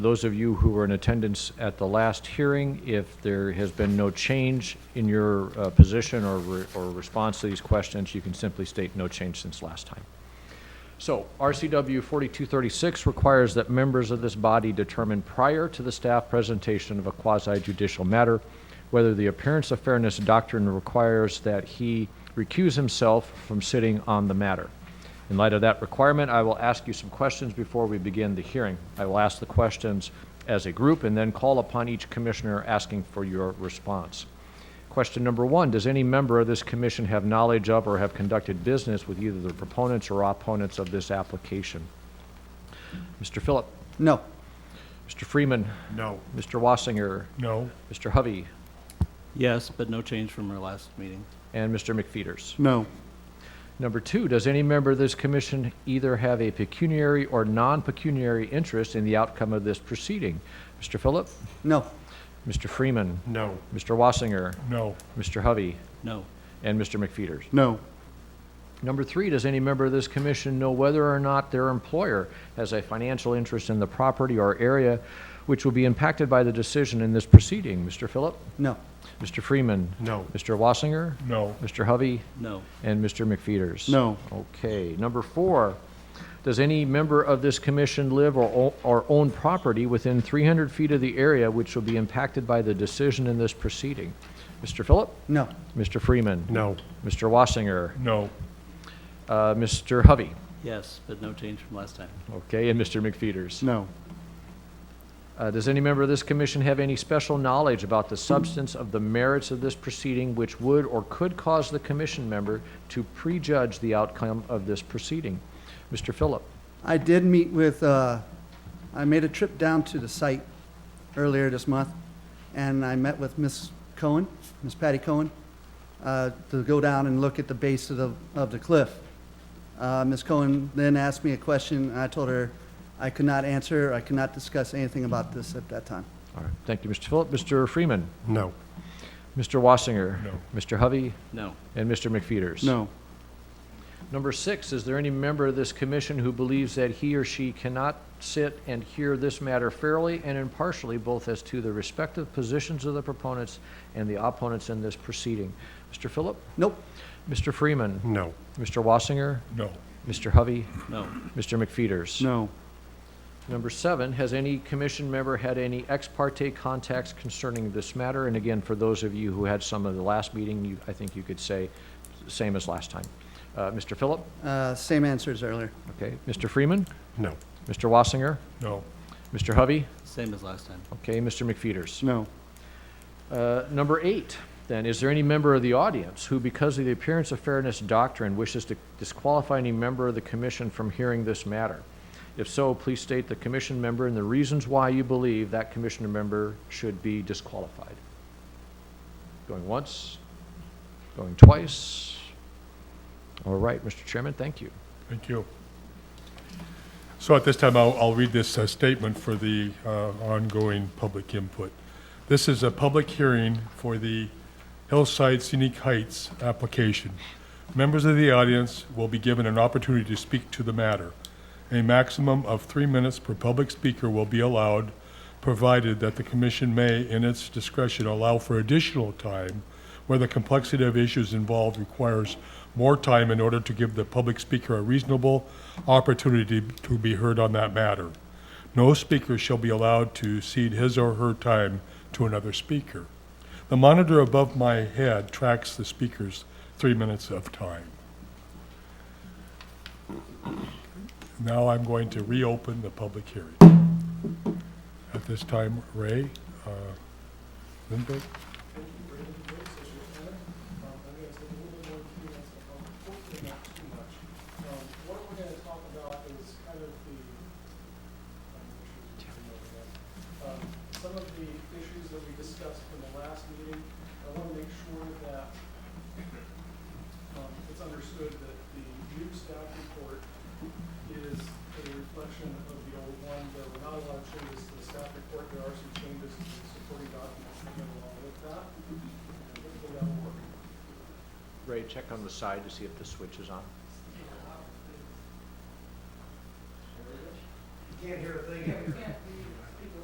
Those of you who were in attendance at the last hearing, if there has been no change in your uh, position or re- or response to these questions, you can simply state no change since last time. So RCW 4236 requires that members of this body determine prior to the staff presentation of a quasi-judicial matter whether the appearance of fairness doctrine requires that he recuse himself from sitting on the matter. In light of that requirement, I will ask you some questions before we begin the hearing. I will ask the questions as a group and then call upon each commissioner asking for your response. Question number one, does any member of this commission have knowledge of or have conducted business with either the proponents or opponents of this application? Mr. Philip, No. Mr. Freeman, No. Mr. Wassinger, No. Mr. Hovey, Yes, but no change from our last meeting. and Mr. McFeeters. No. Number two, does any member of this commission either have a pecuniary or non-pecuniary interest in the outcome of this proceeding? Mr. Philip, No. Mr. Freeman, No. Mr. Wassinger, No. Mr. Hovey, No, and Mr. McFeeters. No. Number three, does any member of this commission know whether or not their employer has a financial interest in the property or area which will be impacted by the decision in this proceeding? Mr. Philip? No. Mr. Freeman? No. Mr. Wassinger? No. Mr. Hovey? no, And Mr. McFeeters? No. Okay. Number four, does any member of this commission live or, o- or own property within 300 feet of the area which will be impacted by the decision in this proceeding? Mr. Philip? No. Mr. Freeman? No. Mr. Wassinger? No. Uh, Mr. Hovey? yes, but no change from last time. Okay, and Mr. McFeeters. No. Uh, Does any member of this commission have any special knowledge about the substance of the merits of this proceeding which would or could cause the commission member to prejudge the outcome of this proceeding? Mr. Phillip. I did meet with, uh, I made a trip down to the site earlier this month, and I met with Miss Cohen, Miss Patty Cohen, uh, to go down and look at the base of the, of the cliff. Uh, Ms. Cohen then asked me a question, and I told her I could not answer, I could not discuss anything about this at that time. All right, thank you, Mr. Phillip. Mr. Freeman. No. Mr. Wassinger. No. Mr. Hovey No, and Mr. McFeeters. No. Number six, is there any member of this commission who believes that he or she cannot sit and hear this matter fairly and impartially, both as to the respective positions of the proponents and the opponents in this proceeding? Mr. Phillip? Nope. Mr. Freeman? No. Mr. Wassinger? No. Mr. Hovey? no, Mr. McFeeters? No. Number seven, has any commission member had any ex parte contacts concerning this matter? And again, for those of you who had some of the last meeting, you, I think you could say same as last time. Uh, Mr. Phillip? Uh, Same answers earlier. Okay. Mr. Freeman? No. Mr. Wassinger? No. Mr. Hovey? same as last time. Okay, Mr. McFeeters. No. Uh, Number eight, then, is there any member of the audience who, because of the appearance of fairness doctrine, wishes to disqualify any member of the commission from hearing this matter? If so, please state the commission member and the reasons why you believe that commissioner member should be disqualified. Going once, going twice. All right, Mr. Chairman, thank you. Thank you. So at this time, I'll, I'll read this uh, statement for the uh, ongoing public input. This is a public hearing for the Hillside Scenic Heights application. Members of the audience will be given an opportunity to speak to the matter. A maximum of three minutes per public speaker will be allowed, provided that the commission may, in its discretion, allow for additional time where the complexity of issues involved requires more time in order to give the public speaker a reasonable opportunity to be heard on that matter. No speaker shall be allowed to cede his or her time to another speaker. The monitor above my head tracks the speaker's three minutes of time. Now I'm going to reopen the public hearing. At this time, Ray uh, Lindberg? What we're gonna talk about is kind of the, um, issues we can go over. Um, some of the issues that we discussed in the last meeting. I wanna make sure that, um, it's understood that the new staff report is a reflection of the old one. There were not a lot of changes to the staff report. There are some changes to the supporting documents that go along with that. And hopefully that'll work. Ray, check on the side to see if the switch is on. Can't hear a thing.